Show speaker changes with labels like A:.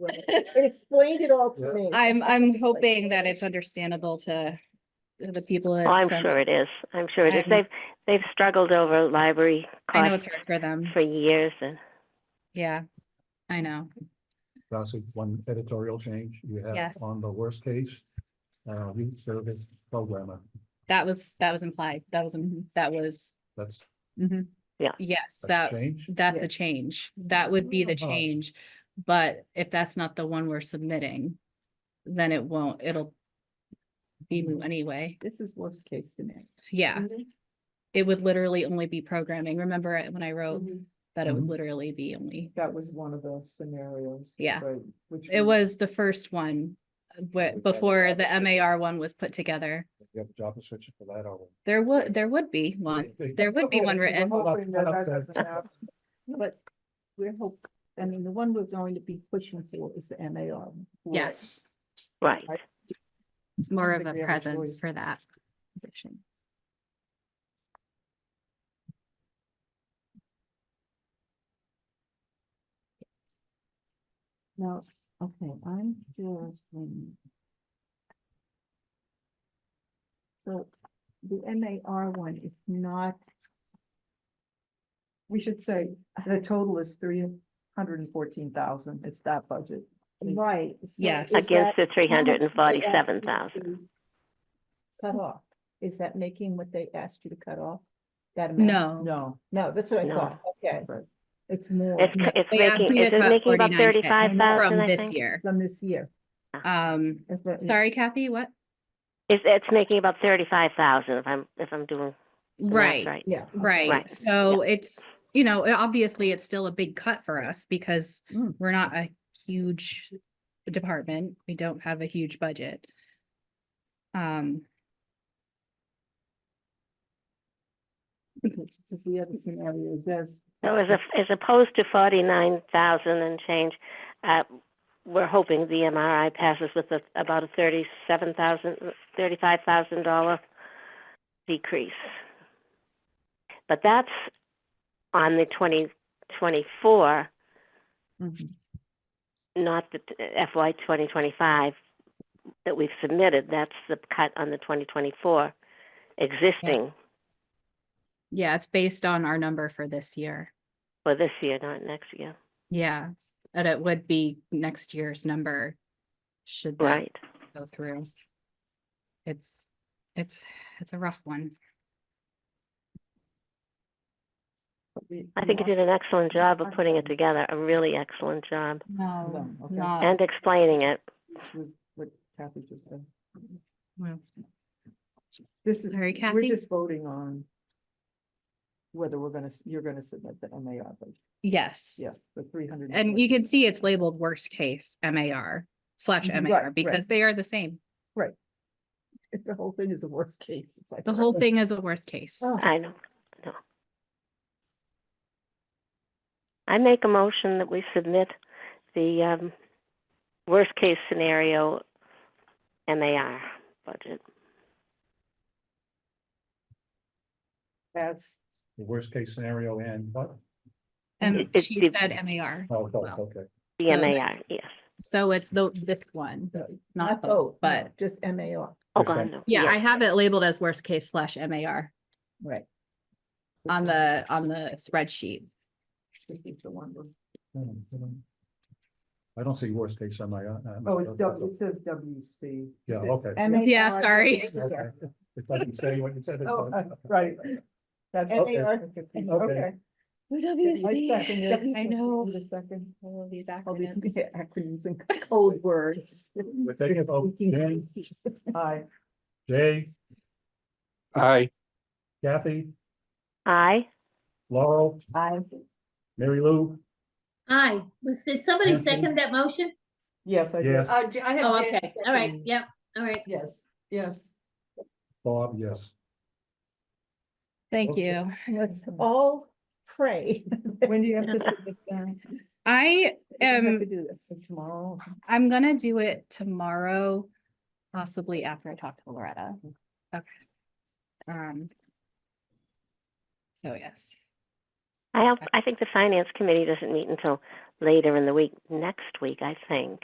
A: Right. It explained it all to
B: Yeah.
A: me.
C: I'm, I'm hoping that it's understandable to to the people.
D: Oh, I'm
C: it's sent-
D: sure it is. I'm sure it is.
C: I'm-
D: They've, they've struggled over library
C: I know it's
D: costs
C: hard for them.
D: for years and,
C: Yeah, I know.
B: That's a- one editorial change you have
C: Yes.
B: on the worst case. Uh, youth service programmer,
C: That was, that was implied. That was, that was,
B: that's,
C: mhm.
D: Yeah.
C: Yes,
B: that's a
C: that,
B: change.
C: that's
A: Yeah.
C: a change. That would be the
B: Uh-huh.
C: change. But if that's not the one we're submitting, then it won't, it'll be moot anyway.
A: This is worst case scenario.
C: Yeah,
A: Mm-hmm.
C: it would literally only be programming. Remember it when I
A: Mm-hmm.
C: wrote that it would
B: Mhm.
C: literally be only,
A: That was one of the scenarios.
C: Yeah.
A: right, which
C: it
A: we-
C: was the first one uh, wh-
B: We've got
C: before the
B: opposite.
C: MAR one was put together.
B: You have a job description for that already.
C: There would, there would be one.
B: They-
C: There would be one
B: Hold
C: written.
B: up,
E: hoping that
B: hold
E: that
B: up, uh,
E: doesn't happen. But we're hope, I mean, the one we're going to be pushing for is the MAR.
C: Yes,
D: right.
A: I-
C: it's more of
A: think
C: a
A: we have a
C: presence
A: choice.
C: for that position.
E: Now, okay, I'm just. um, So the MAR one is not,
A: We should say the total is three hundred and fourteen thousand. It's that budget.
E: right. so
C: Yes.
E: is
D: Against
E: that-
D: the three hundred and forty-seven thousand.
A: Cut off. Is that making what they asked you to cut off? That
C: amount?
A: No, no, that's what I
D: No.
A: thought. Okay.
E: It's more
D: It's,
C: No,
D: it's
C: they asked
D: making,
C: me to
D: is it
C: cut
D: making about
C: 49K
D: thirty-five
C: From
D: thousand, I
C: this
D: think?
C: year.
E: from this year.
C: Um,
E: if it-
C: sorry Kathy, what?
D: It's, it's making about thirty-five thousand if I'm, if I'm doing the math
C: Right.
D: right.
A: Yeah.
C: Right,
D: Right,
C: so it's, you know, it- obviously it's still a big cut for us because
A: Mm.
C: we're not a huge department. We don't have a huge budget. Um,
E: Because the other scenario does.
D: So as, a- as opposed to forty-nine thousand and change, uh, we're hoping the MRI passes with a, about a thirty-seven thousand, thirty-five thousand dollar decrease. But that's on the twenty twenty-four,
E: Mhm.
D: Mm-hmm. not the t- FY twenty twenty-five that we've submitted. That's the cut on the twenty twenty-four existing
C: yeah, it's based on our number for this year.
D: for this year, not next year.
C: Yeah, and it would be next year's number. Should that
D: Right.
C: go through? It's, it's, it's a rough one.
D: I think you did an excellent job of putting it together, a really excellent job,
C: No,
A: okay.
C: not,
D: and explaining it.
A: What Kathy just said.
C: well,
A: This is,
C: Sorry,
A: we're
C: Kathy?
A: just voting on whether we're gonna, s- you're gonna submit the MAR budget,
C: yes.
A: yes, the three hundred.
C: And you can see it's labeled worst case MAR slash
A: Mhm. Right,
C: MAR
A: right.
C: because they are the same.
E: The whole thing is a worst case. It's like.
C: The whole thing is a worst case.
E: Oh.
D: I know, no. I make a motion that we submit the um, worst-case scenario MAR budget.
E: That's.
B: The worst case scenario and, what?
C: And
D: it-
C: she
D: it-
C: said MAR.
B: oh, oh,
C: Well.
B: okay.
D: The
C: So
D: MAR,
C: that's-
D: yes.
C: So it's the, this one, not both, but
E: Just MAR,
D: Oh,
B: Is that-
D: God, no.
C: yeah, I have it labeled as worst case slash MAR
E: right.
C: on the, on the spreadsheet.
E: This is the one we're-
B: I don't see worst case on my. uh, uh,
A: Oh, it's
B: uh,
A: W, it says WC.
B: Yeah, okay.
C: Yeah,
E: MAR.
C: sorry.
B: Okay. It doesn't say what you said. it
E: Oh,
B: said.
A: Right. That's.
B: Okay.
A: MAR, Okay. I second it.
C: I know.
A: The second.
C: All of these
E: All these
C: acronyms.
E: acronyms and code words.
B: We're taking a vote. Dan,
A: Aye.
B: Jay,
F: Aye.
B: Kathy,
D: Aye,
B: Laurel,
E: I,
B: Mary Lou,
G: Aye. Was, did somebody
B: Thank you.
G: second that motion?
A: Yes, I did.
B: Yes.
E: Uh, I have.
G: Oh, okay. All right. Yep. All right.
A: Yes, yes.
B: Bob, yes.
C: Thank
B: Okay.
C: you.
A: Let's all pray. When do you have to submit that?
C: I
E: Have
G: Um,
C: am,
E: to do this tomorrow.
C: I'm gonna do it tomorrow, possibly after I talk to Loretta.
E: Mm-hmm.
C: Okay. Um. So yes.
D: I, hope- I think the Finance Committee doesn't meet until later in the week, next week, I think.